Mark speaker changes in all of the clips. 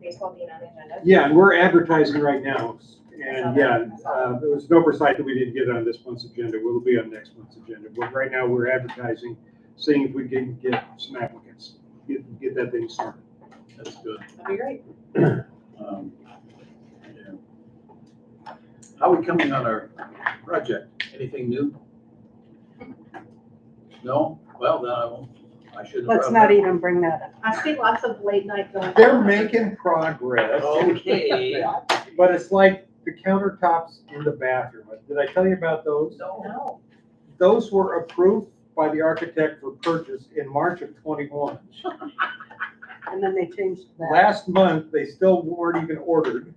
Speaker 1: baseball being on the agenda.
Speaker 2: Yeah, and we're advertising right now, and yeah,
Speaker 1: I saw
Speaker 2: uh, there was an oversight that we didn't get on this month's agenda, will be on next month's agenda, but right now, we're advertising, seeing if we can get some applicants, get, get that thing started.
Speaker 3: That's good.
Speaker 1: That'd be great.
Speaker 3: Um, yeah. How are we coming on our project? Anything new? No? Well, then I won't, I shouldn't. have
Speaker 4: Let's
Speaker 3: brought
Speaker 4: not
Speaker 3: it
Speaker 4: even bring that up.
Speaker 1: I see lots of late night going.
Speaker 5: They're making progress.
Speaker 2: e-
Speaker 3: up. Okay.
Speaker 2: But it's like the countertops in the bathroom, did I tell you about those?
Speaker 3: No.
Speaker 1: No,
Speaker 2: Those were approved by the architect for purchase in March of twenty-one.
Speaker 4: And then they changed that.
Speaker 2: Last month, they still weren't even ordered,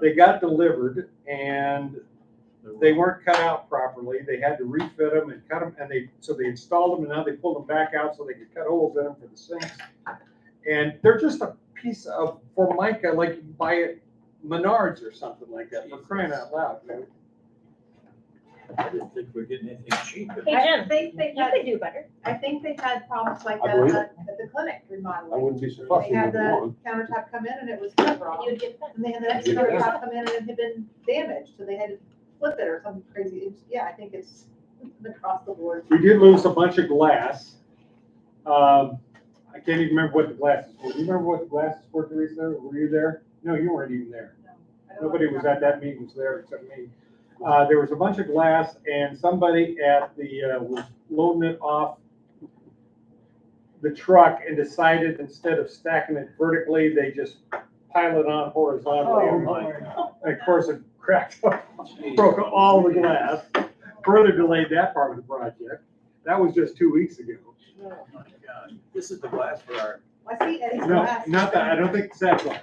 Speaker 2: they got delivered, and they weren't cut out properly, they had to refit them and cut them, and they, so they installed them, and now they pulled them back out so they could cut holes in them for the sinks. And they're just a piece of formica, like you buy at Menards or something like that, for crying out loud, man.
Speaker 3: I didn't think we we're getting anything cheap.
Speaker 6: Hey,
Speaker 1: I
Speaker 6: Jen,
Speaker 1: think they
Speaker 6: You
Speaker 1: had,
Speaker 6: could do better.
Speaker 1: I think they had problems like
Speaker 2: I
Speaker 1: that
Speaker 2: believe
Speaker 1: at at the clinic remodeling.
Speaker 2: be
Speaker 1: They had the countertop come in and it was coverall,
Speaker 6: You'd get better.
Speaker 1: and they had the next
Speaker 2: Yeah.
Speaker 1: countertop come in and it had been damaged, so they had to flip it or something crazy. It's- Yeah, I think it's across the board.
Speaker 2: We did lose a bunch of glass. Um, I can't even remember what the glasses were. Do you remember what the glasses were, Teresa? Were you there? No, you weren't even there.
Speaker 1: I don't
Speaker 2: Nobody was at that meeting was there except me. Uh, there was a bunch of glass and somebody at the, uh, was loading it off the truck and decided instead of stacking it vertically, they just pile it on
Speaker 3: Oh,
Speaker 2: horizontally. And Of course, it cracked up broke all the glass, further delayed that part of the project. That was just two weeks ago.
Speaker 1: No.
Speaker 3: Oh my God. This is the glass for our,
Speaker 1: I see Eddie's
Speaker 2: No,
Speaker 1: glass.
Speaker 2: not that, I don't think it's that glass.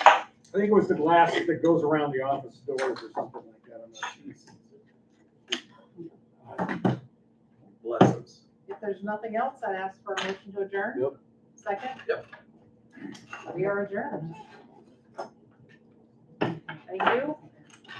Speaker 2: I think it was the glass that goes around the office doors or something like that. I'm not
Speaker 3: bless us.
Speaker 1: If there's nothing else, I'd ask for a motion to adjourn.
Speaker 3: Yep.
Speaker 1: Second?
Speaker 3: Yep.
Speaker 1: We are adjourned. Thank you.